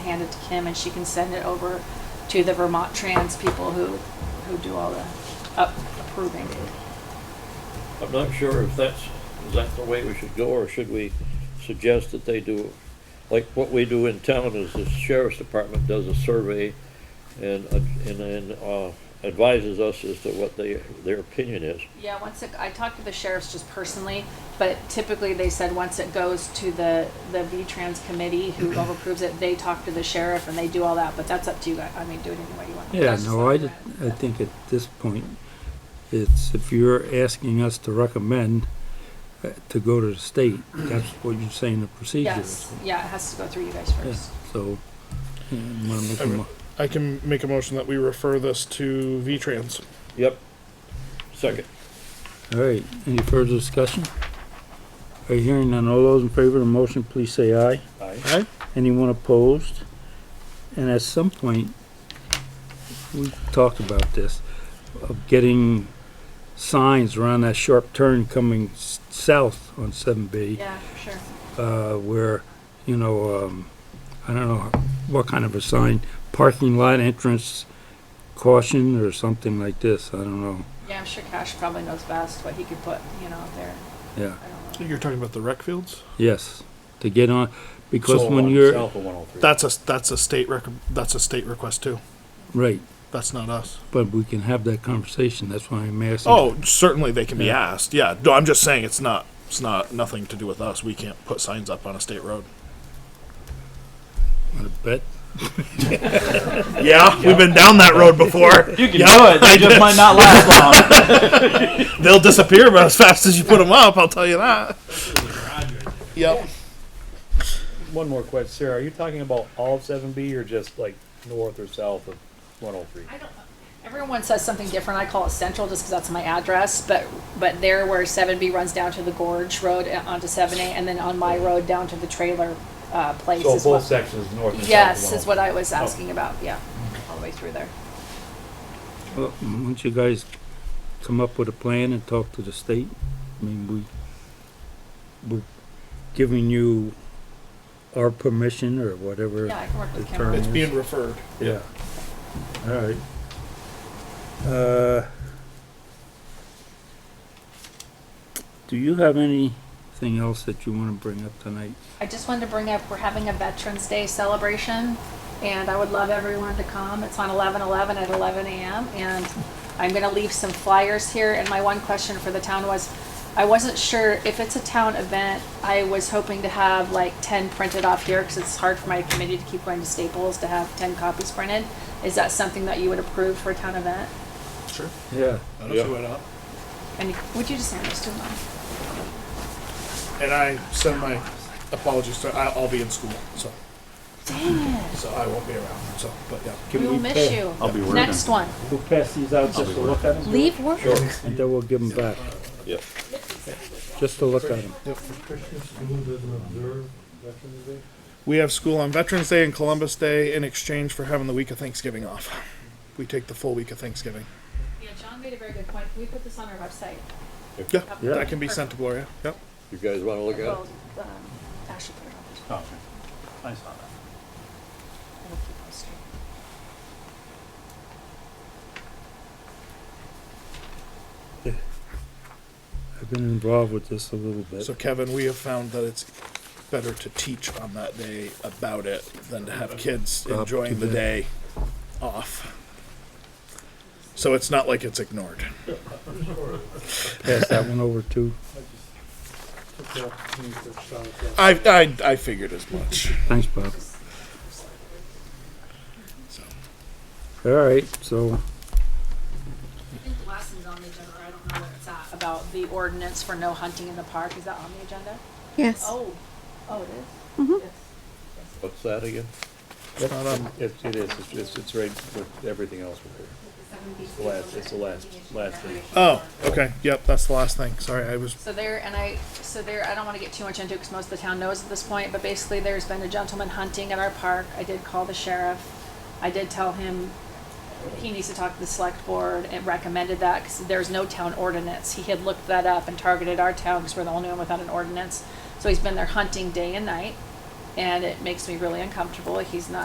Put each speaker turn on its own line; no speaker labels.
hand it to Kim and she can send it over to the Vermont Trans people who, who do all the up- approving.
I'm not sure if that's, is that the way we should go, or should we suggest that they do, like what we do in town is the sheriff's department does a survey and, uh, and, and uh, advises us as to what they, their opinion is.
Yeah, once it, I talked to the sheriffs just personally, but typically they said once it goes to the, the V-Trans committee who approves it, they talk to the sheriff and they do all that, but that's up to you guys. I mean, do it any way you want.
Yeah,
That's just
no,
not
I,
the
did-
way
I think at this point, it's, if you're asking us to recommend uh, to go to the state, that's what you're saying the procedure is.
Yes, yeah, it has to go through you guys
Yeah,
first.
So, yeah, I'm gonna make a mo-
I can make a motion that we refer this to V-Trans.
Yep. Second.
all right, any further discussion? Are you hearing none? All those in favor of the motion, please say aye.
Aye.
Aye.
Anyone opposed? And at some point, we talked about this, of getting signs around that sharp turn coming s- south on seven B.
Yeah, sure.
uh, where, you know, um, I don't know what kind of a sign, parking lot entrance caution or something like this, I don't know,
Yeah, I'm sure Cash probably knows best what he could put, you know, out there.
yeah,
I don't know.
You're talking about the rec fields?
yes, to get on, because
So
when
on
uh,
you're,
South of 103.
That's a, that's a state rec, that's a state request too.
right,
That's not us.
but we can have that conversation, that's why I'm asking.
Oh, certainly they can be
Yeah.
asked, yeah. No, I'm just saying it's not, it's not, nothing to do with us. We can't put signs up on a state road.
I bet,
Yeah, we've been down that road before.
You can
Yeah,
do it. They just might not last long.
They'll disappear about as fast as you put them up, I'll tell you that. Yep.
One more question, Sarah. Are you talking about all of 7B or just like north or south of 103?
I don't, everyone says something different. I call it Central just because that's my address, but, but there where seven B runs down to the Gorge Road uh, onto seven A and then on my road down to the trailer, uh, place
So
is
oh,
what.
both sections, north and south.
Yes, is what I was
Oh.
asking about, yeah, all the way through there.
well, once you guys come up with a plan and talk to the state, I mean, we, we're giving you our permission or whatever.
Yeah, I can work with
the
Cameron.
term
It's
is.
being referred.
Yeah. All right. Uh, Do you have anything else that you want to bring up tonight?
I just wanted to bring up, we're having a Veterans Day celebration, and I would love everyone to come. It's on 11/11 at 11 a.m., and I'm gonna leave some flyers here, and my one question for the town was, I wasn't sure if it's a town event, I was hoping to have like 10 printed off here, because it's hard for my committee to keep going to Staples to have 10 copies printed. Is that something that you would approve for a town event?
Sure.
Yeah.
I
Yeah.
And would you just hand this to them?
And I send my apologies to, I- I'll be in school, so,
Dang it,
so I won't be around, so, but yeah.
we will miss you.
I'll be working.
Next one,
We'll pass these out just to look at them,
leave work.
and then we'll give them back,
Yep.
just to look at them.
We have school on Veterans Day and Columbus Day in exchange for having the week of Thanksgiving off. We take the full week of Thanksgiving.
Yeah, John made a very good point. Can we put this on our website?
Yeah,
Yeah.
that can be sent to Gloria. Yep.
You guys wanna look at it?
Well, um, Ashley put it
Oh,
on.
okay. I saw that.
We'll keep posting.
I've been involved with this a little bit.
So Kevin, we have found that it's better to teach on that day about it than to have kids
Up
enjoying
to
the
the-
day off. So it's not like it's ignored.
Pass that one over to,
I, I, I figured as much.
thanks, Bob.
So.
All right, so,
I think the last one's on the agenda, or I don't know where it's at, about the ordinance for no hunting in the park. Is that on the agenda?
Yes.
Oh, oh, it is? Yes.
What's that again?
It's not on-
It, it is. It's, it's, it's right with everything else with here. It's the last, it's the last, last thing.
Oh, okay. Yep, that's the last thing. Sorry, I was.
So there, and I, so there, I don't want to get too much into it because most of the town knows at this point, but basically there's been a gentleman hunting at our park. I did call the sheriff. I did tell him he needs to talk to the select board and recommended that because there's no town ordinance. He had looked that up and targeted our town because we're the only one without an ordinance. So he's been there hunting day and night and it makes me really uncomfortable. He's not